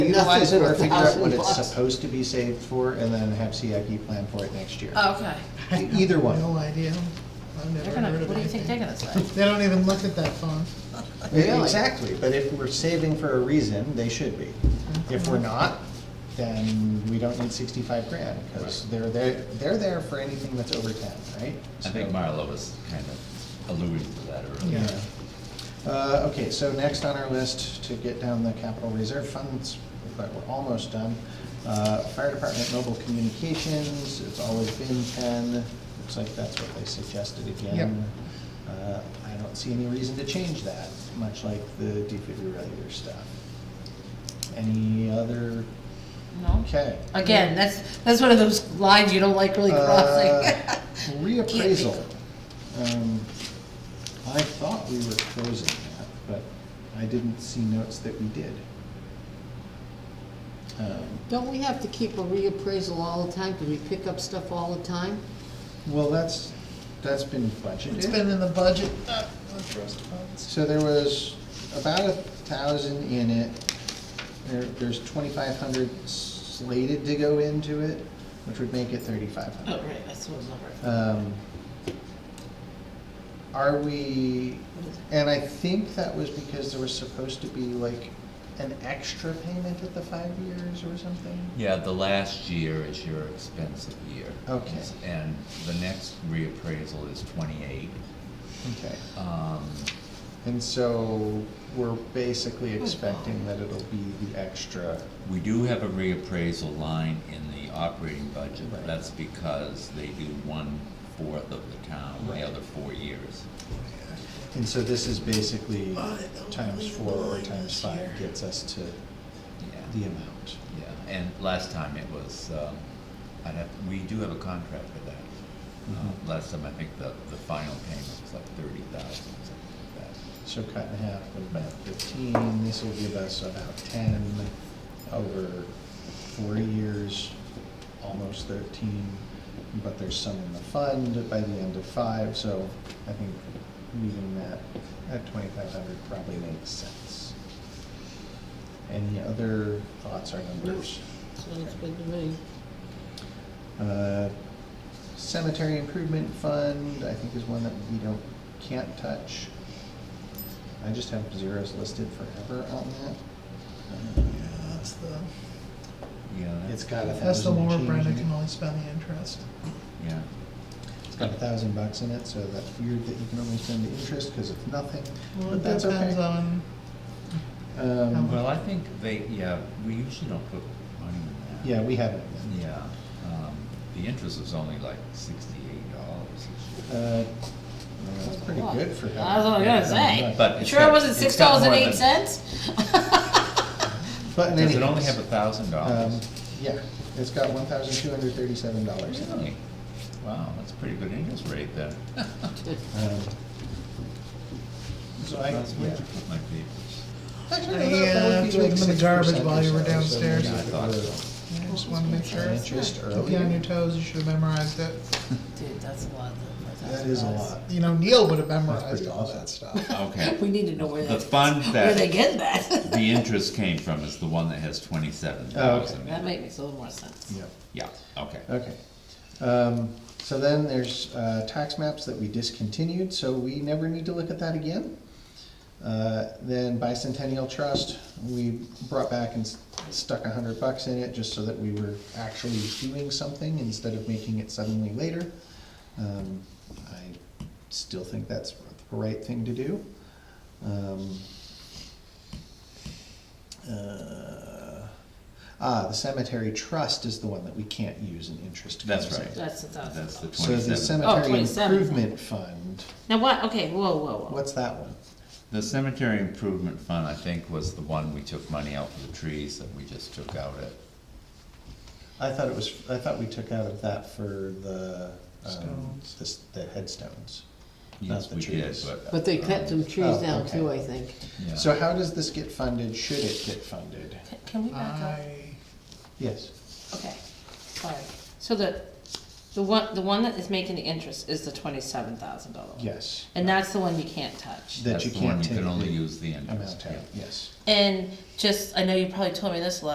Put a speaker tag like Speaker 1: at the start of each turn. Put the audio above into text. Speaker 1: utilize
Speaker 2: Nothing
Speaker 1: it or
Speaker 2: but
Speaker 1: figure out
Speaker 2: thousand
Speaker 1: what it's
Speaker 2: bucks.
Speaker 1: supposed to be saved for and then have CIP plan for it next year.
Speaker 3: Oh, Okay.
Speaker 1: Either
Speaker 4: No
Speaker 1: one.
Speaker 4: idea. I've never
Speaker 3: They're gonna,
Speaker 4: heard of
Speaker 3: what do you think they're
Speaker 4: anything.
Speaker 3: gonna say?
Speaker 4: They don't even look at that phone.
Speaker 3: Really?
Speaker 1: E, Exactly, but if we're saving for a reason, they should be. If we're not, then we don't need sixty-five grand, because they're there, they're there for anything that's over ten, right?
Speaker 5: I think
Speaker 1: So-
Speaker 5: Marla was kind of alluding to that earlier.
Speaker 1: Yeah. Uh, Okay, so next on our list to get down the capital reserve funds, but we're almost done. Uh, Fire Department Mobile Communications, it's always been ten, looks like that's what they suggested again. Uh, I don't see any reason to change that, much like the defibrillator stuff. Any other,
Speaker 3: No?
Speaker 1: okay.
Speaker 3: Again, that's, that's one of those lines you don't like really crossing.
Speaker 1: Uh, Reappraisal. Um, I thought we were closing that, but I didn't see notes that we did. Um,
Speaker 2: Don't we have to keep a reappraisal all the time? Do we pick up stuff all the time?
Speaker 1: Well, that's, that's been budgeted.
Speaker 4: It's been in the budget, not in the trust funds.
Speaker 1: So there was about a thousand in it. There, there's twenty-five hundred slated to go into it, which would make it thirty-five hundred.
Speaker 3: Oh, right, that's what I was over.
Speaker 1: Um, Are we, and I think that was because there was supposed to be like an extra payment at the five years or something?
Speaker 5: Yeah, the last year is your expensive year.
Speaker 1: Okay.
Speaker 5: And the next reappraisal is twenty-eight.
Speaker 1: Okay,
Speaker 5: Um,
Speaker 1: and so we're basically
Speaker 3: Oh,
Speaker 1: expecting that it'll be the extra,
Speaker 5: We do have a reappraisal line in the operating budget,
Speaker 1: Right.
Speaker 5: but that's because they do one-fourth of the town the
Speaker 1: Right.
Speaker 5: other four years.
Speaker 1: and so this is basically times four or times five gets us to the
Speaker 5: Yeah,
Speaker 1: amount.
Speaker 5: yeah, and last time it was, um, I'd have, we do have a contract for that.
Speaker 1: Mhm.
Speaker 5: Uh, Last time, I think the, the final payment was like thirty thousand, something like that.
Speaker 1: So cut in half would be about fifteen, this will give us about ten over four years, almost thirteen. But there's some in the fund by the end of five, so I think leaving that at twenty-five hundred probably makes sense. Any other thoughts or numbers?
Speaker 2: Sounds good to me.
Speaker 1: Uh, Cemetery Improvement Fund, I think is one that we don't, can't touch. I just have zeros listed forever on that.
Speaker 4: Yeah, that's the,
Speaker 5: Yeah,
Speaker 1: Uh, It's
Speaker 5: that's,
Speaker 1: got a
Speaker 4: that's the
Speaker 1: thousand
Speaker 4: lower
Speaker 1: and change
Speaker 4: Brenda
Speaker 1: in it.
Speaker 4: can only spend the interest.
Speaker 5: yeah.
Speaker 1: It's got a thousand bucks in it, so that's weird that you can only spend the interest because it's nothing,
Speaker 4: Well,
Speaker 1: but
Speaker 4: it
Speaker 1: that's okay.
Speaker 4: depends on,
Speaker 1: Um,
Speaker 4: how much-
Speaker 5: Well, I think they, yeah, we usually don't put money in that.
Speaker 1: Yeah, we haven't.
Speaker 5: Yeah, um, the interest is only like sixty-eight dollars.
Speaker 1: Uh, That's pretty good for
Speaker 3: I was
Speaker 1: that.
Speaker 3: what I was gonna say.
Speaker 5: But it's
Speaker 3: Sure
Speaker 5: got-
Speaker 3: it wasn't
Speaker 5: it's
Speaker 3: six
Speaker 5: got
Speaker 3: dollars and
Speaker 5: more than-
Speaker 3: eight cents?
Speaker 1: But in
Speaker 5: Does
Speaker 1: any
Speaker 5: it only
Speaker 1: case,
Speaker 5: have a thousand
Speaker 1: um,
Speaker 5: dollars?
Speaker 1: Yeah, it's got one thousand two hundred thirty-seven dollars in it.
Speaker 5: Really? Wow, that's a pretty good interest rate then.
Speaker 1: Um, So I,
Speaker 5: That's where
Speaker 1: yeah.
Speaker 5: you put my papers.
Speaker 1: Actually,
Speaker 4: I,
Speaker 1: that- that
Speaker 4: uh,
Speaker 1: would be
Speaker 4: threw
Speaker 1: like
Speaker 4: them in the
Speaker 1: 6%
Speaker 4: garbage while you were
Speaker 1: or so, so
Speaker 4: downstairs.
Speaker 1: maybe
Speaker 5: Yeah, I thought
Speaker 1: we're
Speaker 5: so.
Speaker 4: I just wanna make sure.
Speaker 1: on Interest
Speaker 4: Keep you on your
Speaker 1: earlier.
Speaker 4: toes, you should've memorized it.
Speaker 3: Dude, that's a lot. that's
Speaker 1: That is a
Speaker 3: lot.
Speaker 1: lot.
Speaker 4: You know, Neil would've
Speaker 1: That's
Speaker 4: memorized
Speaker 1: pretty
Speaker 4: all
Speaker 1: awesome.
Speaker 4: that stuff.
Speaker 5: Okay.
Speaker 3: We need to know where
Speaker 5: The
Speaker 3: that's,
Speaker 5: fund
Speaker 3: where they
Speaker 5: that
Speaker 3: get that.
Speaker 5: the interest came from is the one that has twenty-seven thousand.
Speaker 1: Oh,
Speaker 3: That makes a little more sense.
Speaker 1: Yep,
Speaker 5: Yeah, okay. Uh,
Speaker 1: okay. Um, so then there's, uh, tax maps that we discontinued, so we never need to look at that again. Uh, then bicentennial trust, we brought back and s- stuck a hundred bucks in it just so that we were actually doing something instead of making it suddenly later. Um, I still think that's the right thing to do. Um, uh, Ah, the cemetery trust is the one that we can't use in interest.
Speaker 5: That's
Speaker 1: comes in.
Speaker 5: right.
Speaker 3: That's a thousand
Speaker 5: That's the
Speaker 3: dollars.
Speaker 1: So the
Speaker 5: twenty-seven.
Speaker 3: Oh,
Speaker 1: cemetery
Speaker 3: 27.
Speaker 1: improvement fund,
Speaker 3: Now what, okay, whoa, whoa, whoa.
Speaker 1: what's that one?
Speaker 5: The cemetery improvement fund, I think, was the one we took money out for the trees that we just took out at
Speaker 1: I thought it was, I thought we took out of that for the, um,
Speaker 4: Stones.
Speaker 1: the, s- the headstones. not
Speaker 5: Yes,
Speaker 1: the
Speaker 5: we did,
Speaker 1: trees.
Speaker 5: but.
Speaker 2: But they cut some
Speaker 5: um,
Speaker 2: trees
Speaker 1: Oh,
Speaker 2: down too, I
Speaker 1: okay.
Speaker 2: think.
Speaker 5: yeah.
Speaker 1: So how does this get funded? Should it get funded?
Speaker 3: Can- Can we back up?
Speaker 4: I,
Speaker 1: Yes.
Speaker 3: Okay, sorry. So the, the one, the one that is making the interest is the twenty-seven thousand dollar one?
Speaker 1: Yes.
Speaker 3: And that's the one you can't touch?
Speaker 1: That
Speaker 5: That's
Speaker 1: you
Speaker 5: the one
Speaker 1: can't
Speaker 5: we
Speaker 1: take
Speaker 5: can only
Speaker 1: the
Speaker 5: use the interest,
Speaker 1: amount out,
Speaker 5: yeah.
Speaker 1: yes.
Speaker 3: And just, I know you probably told me this last